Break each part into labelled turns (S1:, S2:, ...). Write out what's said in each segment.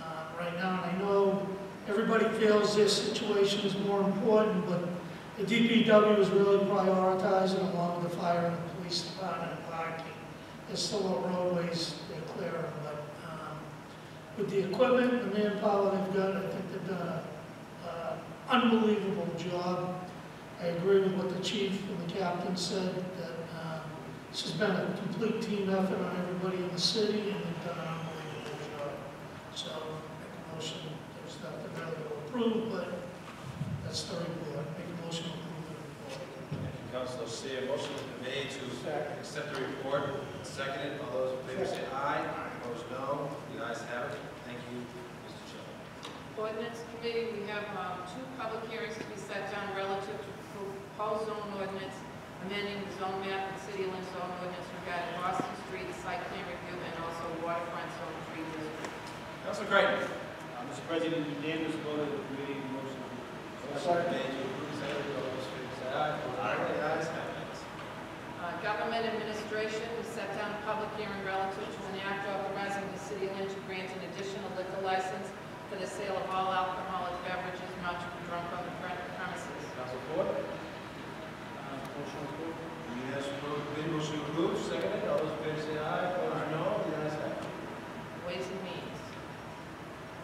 S1: uh, everybody feels their situation is more important, but the DPW is really prioritizing along with the fire and the police department and parking. There's still a roadways they're clearing, but, um, with the equipment, and the manpower they've got, I think they've done a, uh, unbelievable job. I agree with what the chief and the captain said, that, um, this has been a complete team effort on everybody in the city, and they've done an unbelievable job. So, make a motion, there's nothing really to approve, but that's the report, make a motion to approve the report.
S2: Thank you, Councilor Seer. Motion has been made to accept the report, seconded. All those in favor say aye. Opposed, no. The ayes have it. Thank you, Mr. Chairman.
S3: Ordinance Committee, we have um, two public hearings to be set down relative to proposed zone ordinance, amending the zone map and city limit zone ordinance regarding Boston Street site plan review and also waterfront zone three district.
S2: Councilor Creighton.
S4: Uh, Mr. President, unanimous vote of the committee, motion approved.
S2: Motion been made to approve, seconded. All those in favor say aye. Aye. The ayes have it.
S3: Uh, Government Administration, we set down a public hearing relative to an act authorizing the city of Lynn to grant an additional liquor license for the sale of all alcoholic beverages not to be drunk on the premises.
S2: Councilor Ford.
S4: Uh, Motion approved.
S2: Unanimous approval, committee motion approved, seconded. All those in favor say aye. Opposed, no. The ayes have it.
S3: Ways and Means.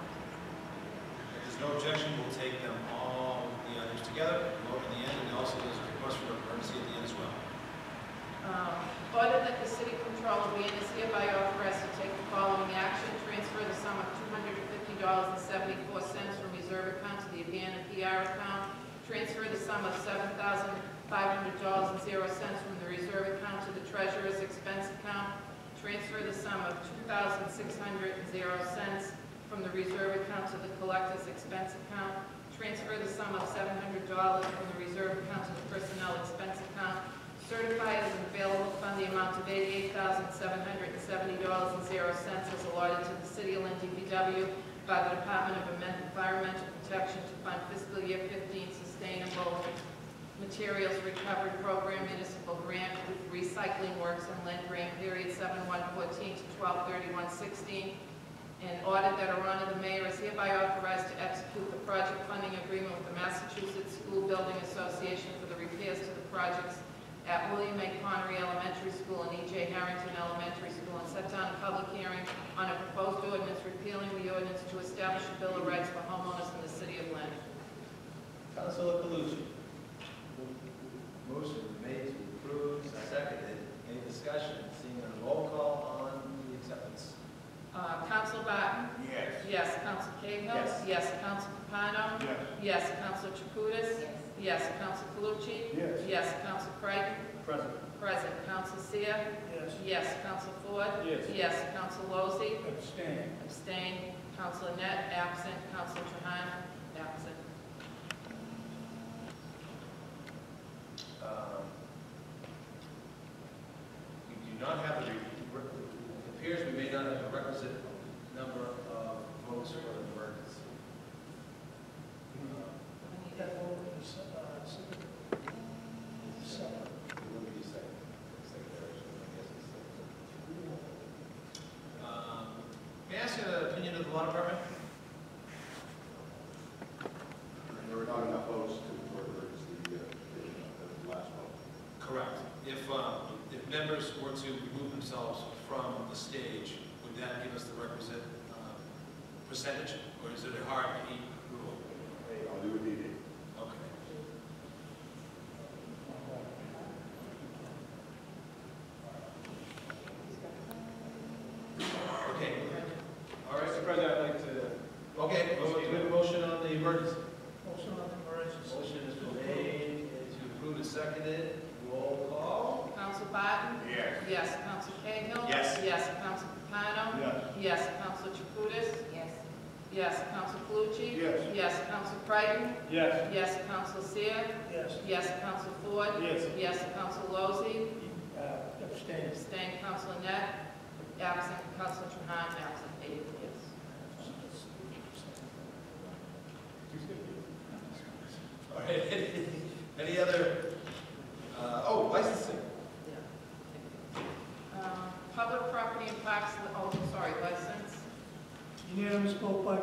S2: If there's no objection, we'll take them all, the others together, vote at the end, and also there's a request for emergency at the end as well.
S3: Um, Order that the city controller be and is hereby authorized to take the following action. Transfer the sum of $250.74 from reserve account to the Abana PR account. Transfer the sum of $7,500.00 from the reserve account to the treasurer's expense account. Transfer the sum of $2,600.00 from the reserve account to the collector's expense account. Transfer the sum of $700 from the reserve account to the personnel expense account. Certify as an available fund the amount of eighty-eight thousand, seven hundred and seventy dollars and zero cents as allotted to the city of Lynn DPW by the Department of Environmental Protection to fund fiscal year fifteen sustainable materials recovery program municipal grant with recycling works in Lynn Grant period seven one fourteen to twelve thirty-one sixteen. And order that her honor the mayor is hereby authorized to execute the project funding agreement with the Massachusetts School Building Association for the repairs to the projects at William A. Connery Elementary School and E.J. Harrington Elementary School, and set down a public hearing on a proposed ordinance repealing the ordinance to establish a bill of rights for homeowners in the city of Lynn.
S2: Councilor Calucci. Motion made to approve, seconded. Any discussion? Seeing none, roll call on the acceptance.
S3: Uh, Counsel Barton?
S2: Yes.
S3: Yes. Counsel Cahill?
S2: Yes.
S3: Yes. Counsel Capano?
S4: Yes.
S3: Yes. Counsel Chakutis? Yes. Counsel Calucci?
S4: Yes.
S3: Yes. Counsel Creighton?
S4: President.
S3: Present. Counsel Seer?
S1: Yes.
S3: Yes. Counsel Ford?
S4: Yes.
S3: Yes. Counsel Lozey?
S4: Abstain.
S3: Abstain. Counsel Net absent. Counsel Trahan, absent.
S2: Um, We do not have the, re- re- it appears we may not have the requisite number of votes for the emergency. Uh,
S3: We need a-
S1: That vote is, uh, separate. Separate.
S2: Let me just say, secretary, I guess it's secretary. Um, May I ask an opinion of the law department?
S5: There were not enough votes to, for emergency, uh, the, uh, the last vote.
S2: Correct. If, um, if members were to remove themselves from the stage, would that give us the requisite um, percentage, or is it a hard key rule?
S5: I'll do it needed.
S2: Okay. Okay, all right,
S4: Mr. President, I'd like to,
S2: okay, well, do we have a motion on the emergency?
S1: Motion on the emergency.
S2: Motion has been made to approve and seconded, roll call.
S3: Counsel Barton?
S5: Yes.
S3: Yes. Counsel Cahill?
S2: Yes.
S3: Yes. Counsel Capano?
S5: Yes.
S3: Yes. Counsel Chakutis? Yes. Yes. Counsel Calucci?
S5: Yes.
S3: Yes. Counsel Creighton?
S4: yes.
S3: Yes. Counsel Seer?
S1: Yes.
S3: Yes. Counsel Ford?
S4: Yes.
S3: Yes. Counsel Lozey?
S1: Uh, abstain.
S3: Abstain. Counsel Net? Absent. Counsel Trahan, absent. Eight yes.
S2: All right, any- any other, uh, oh, licensing,
S3: Yeah. Um, Public property and parks, oh, sorry, license?
S1: Unanimous vote by